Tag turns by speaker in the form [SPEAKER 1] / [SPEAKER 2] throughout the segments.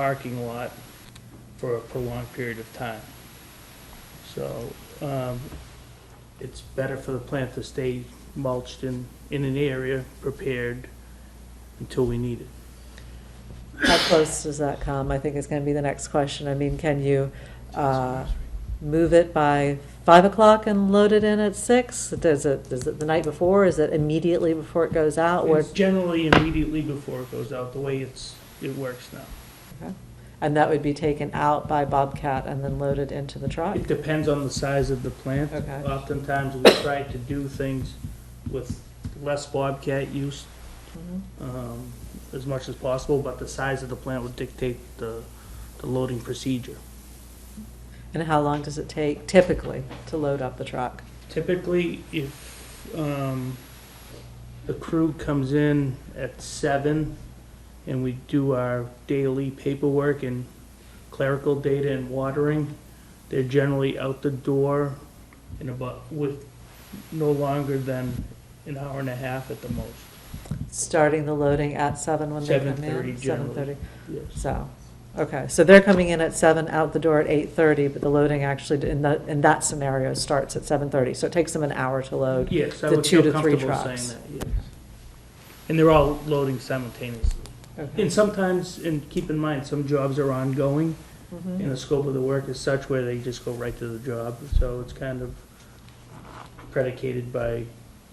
[SPEAKER 1] parking lot for a prolonged period of time. So, um, it's better for the plant to stay mulched in, in an area, prepared until we need it.
[SPEAKER 2] How close does that come? I think is going to be the next question. I mean, can you uh, move it by 5 o'clock and load it in at 6? Does it, is it the night before? Is it immediately before it goes out? Or-
[SPEAKER 1] It's generally immediately before it goes out, the way it's, it works now.
[SPEAKER 2] And that would be taken out by Bobcat and then loaded into the truck?
[SPEAKER 1] It depends on the size of the plant.
[SPEAKER 2] Okay.
[SPEAKER 1] Oftentimes, we try to do things with less bobcat use,
[SPEAKER 2] Mhm.
[SPEAKER 1] um, as much as possible, but the size of the plant would dictate the, the loading procedure.
[SPEAKER 2] And how long does it take typically to load up the truck?
[SPEAKER 1] Typically, if um, the crew comes in at seven and we do our daily paperwork and clerical data and watering, they're generally out the door in about, with no longer than an hour and a half at the most.
[SPEAKER 2] Starting the loading at 7 when they come in?
[SPEAKER 1] 7:30 generally.
[SPEAKER 2] 7:30.
[SPEAKER 1] Yes.
[SPEAKER 2] So, okay, so they're coming in at seven, out the door at eight thirty, but the loading actually, in that, in that scenario, starts at seven thirty, so it takes them an hour to load.
[SPEAKER 1] Yes, I
[SPEAKER 2] The
[SPEAKER 1] would
[SPEAKER 2] two
[SPEAKER 1] feel
[SPEAKER 2] to three
[SPEAKER 1] comfortable saying
[SPEAKER 2] trucks.
[SPEAKER 1] that, yes. And they're all loading simultaneously.
[SPEAKER 2] Okay.
[SPEAKER 1] And sometimes, and keep in mind, some jobs are ongoing,
[SPEAKER 2] Mhm.
[SPEAKER 1] and the scope of the work is such where they just go right to the job, so it's kind of predicated by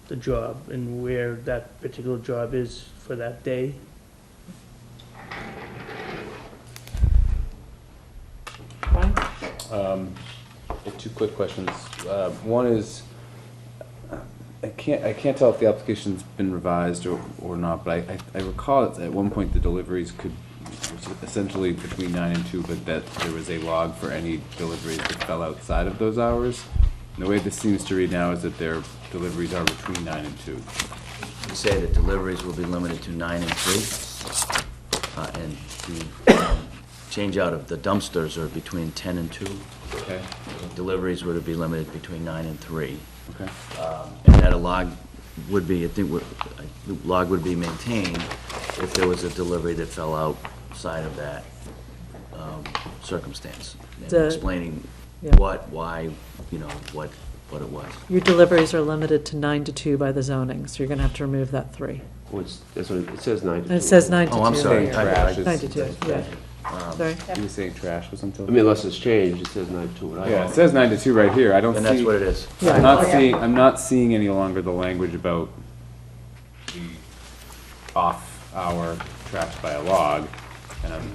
[SPEAKER 1] the job and where that particular job is for that day.
[SPEAKER 2] Fine.
[SPEAKER 3] Um, I have Two quick questions. Uh, One is, I can't, I can't tell if the application's been revised or, or not, but I, I recall it's at one point the deliveries could, essentially between nine and two, but that there was a log for any deliveries that fell outside of those hours. And the way this seems to read now is that their deliveries are between nine and two.
[SPEAKER 4] You say that deliveries will be limited to nine and three, uh, and the um, change out of the dumpsters are between ten and two.
[SPEAKER 3] Okay.
[SPEAKER 4] Deliveries were to be limited between nine and three,
[SPEAKER 3] Okay.
[SPEAKER 4] um, and that a log would be, I think, would- a log would be maintained if there was a delivery that fell outside of that um, circumstance. And
[SPEAKER 2] The-
[SPEAKER 4] explaining
[SPEAKER 2] Yeah.
[SPEAKER 4] what, why, you know, what, what it was.
[SPEAKER 2] Your deliveries are limited to nine to two by the zoning, so you're gonna have to remove that three.
[SPEAKER 5] Well, it's, that's what it it says nine to
[SPEAKER 2] And
[SPEAKER 5] two.
[SPEAKER 2] it says nine to two.
[SPEAKER 4] Oh, I'm sorry.
[SPEAKER 3] Saying trash
[SPEAKER 2] Nine to
[SPEAKER 3] is,
[SPEAKER 2] two, yeah.
[SPEAKER 4] Um,
[SPEAKER 2] Sorry,
[SPEAKER 3] you were saying trash was
[SPEAKER 5] I mean,
[SPEAKER 3] until?
[SPEAKER 5] unless it's changed, it says nine to two. and I-
[SPEAKER 3] Yeah, it says nine to two right here. I don't see.
[SPEAKER 4] And that's what it is.
[SPEAKER 3] I'm
[SPEAKER 2] yeah,
[SPEAKER 3] not seeing, I'm not seeing any longer the language about the off-hour trash by a log, and I'm.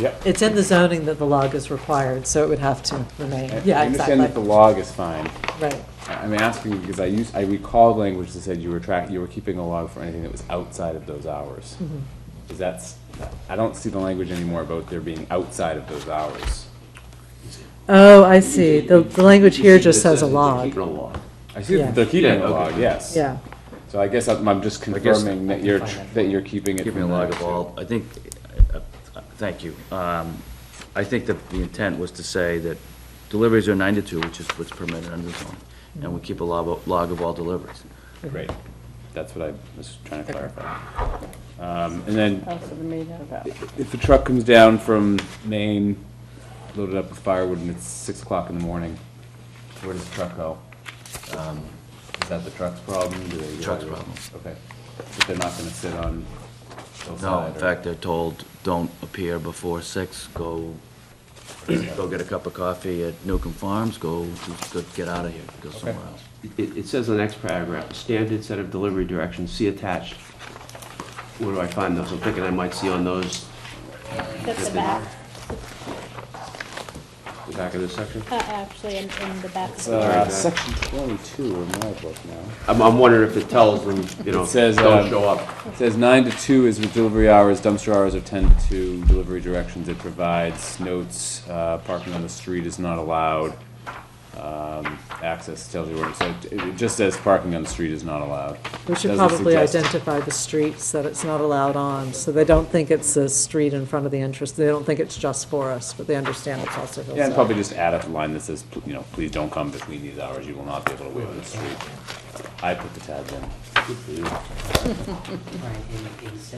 [SPEAKER 3] Yep.
[SPEAKER 2] it's in the zoning that the log is required, so it would have to remain,
[SPEAKER 3] I-
[SPEAKER 2] yeah,
[SPEAKER 3] I understand that the
[SPEAKER 2] exactly,
[SPEAKER 3] log is fine.
[SPEAKER 2] right.
[SPEAKER 3] I- I'm asking because I use, I recall language that said you were track, you were keeping a log for anything that was outside of those hours.
[SPEAKER 2] Mm-hmm.
[SPEAKER 3] Is that's, I don't see the language anymore about there being outside of those hours.
[SPEAKER 2] Oh, I see, the, the language
[SPEAKER 5] You
[SPEAKER 2] here
[SPEAKER 5] see,
[SPEAKER 2] just
[SPEAKER 5] it
[SPEAKER 2] says a
[SPEAKER 5] they're
[SPEAKER 2] log,
[SPEAKER 5] keeping a log.
[SPEAKER 3] I see
[SPEAKER 2] Yeah.
[SPEAKER 3] that they're keeping a
[SPEAKER 5] Yeah,
[SPEAKER 3] log,
[SPEAKER 5] okay.
[SPEAKER 3] yes.
[SPEAKER 2] yeah.
[SPEAKER 3] So I guess I'm, I'm just
[SPEAKER 4] guess
[SPEAKER 3] confirming that you're, tr- that you're keeping it.
[SPEAKER 4] Give me a
[SPEAKER 3] from
[SPEAKER 4] log
[SPEAKER 3] there,
[SPEAKER 4] of
[SPEAKER 3] too.
[SPEAKER 4] all, I think, uh, uh, thank you. Um, I think that the intent was to say that deliveries are nine to two, which is what's permitted under the zone, and we keep a log, of- log of all deliveries.
[SPEAKER 3] Great, that's what I was trying to clarify. Um, And then,
[SPEAKER 6] Also the meeting about.
[SPEAKER 3] if the truck comes down from Maine, loaded up with firewood, and it's six o'clock in the morning, where does the truck go? Um, Is that the truck's problem? Do they-
[SPEAKER 4] Truck's problem.
[SPEAKER 3] Okay, but they're not gonna sit on
[SPEAKER 4] No, in
[SPEAKER 3] hillside or-
[SPEAKER 4] fact, they're told, don't appear before six, go, go get a cup of coffee at Newcomb Farms, go, go get out of here, go somewhere else.
[SPEAKER 5] It, it says in the next paragraph, standard set of delivery directions, see attached. Where do I find those? I'm thinking I might see on those,
[SPEAKER 6] That's the back,
[SPEAKER 5] the back of this section.
[SPEAKER 6] uh, actually, in, in the back.
[SPEAKER 3] It's, uh, section twenty-two in my book now.
[SPEAKER 5] I'm, I'm wondering if it tells them, you know,
[SPEAKER 3] It says,
[SPEAKER 5] don't
[SPEAKER 3] um,
[SPEAKER 5] show up.
[SPEAKER 3] It says nine to two is with delivery hours, dumpster hours are ten to two, delivery directions it provides, notes, uh, parking on the street is not allowed. Um, access tells you where, so it- it just says parking on the street is not allowed.
[SPEAKER 2] We should
[SPEAKER 3] Doesn't
[SPEAKER 2] probably
[SPEAKER 3] suggest-
[SPEAKER 2] identify the streets that it's not allowed on, so they don't think it's a street in front of the interest, they don't think it's just for us, but they understand it's also hillside.
[SPEAKER 3] Yeah, and probably just add a line that says, pl- you know, please don't come between these hours, you will not be able to wait on the street. I put the tab in.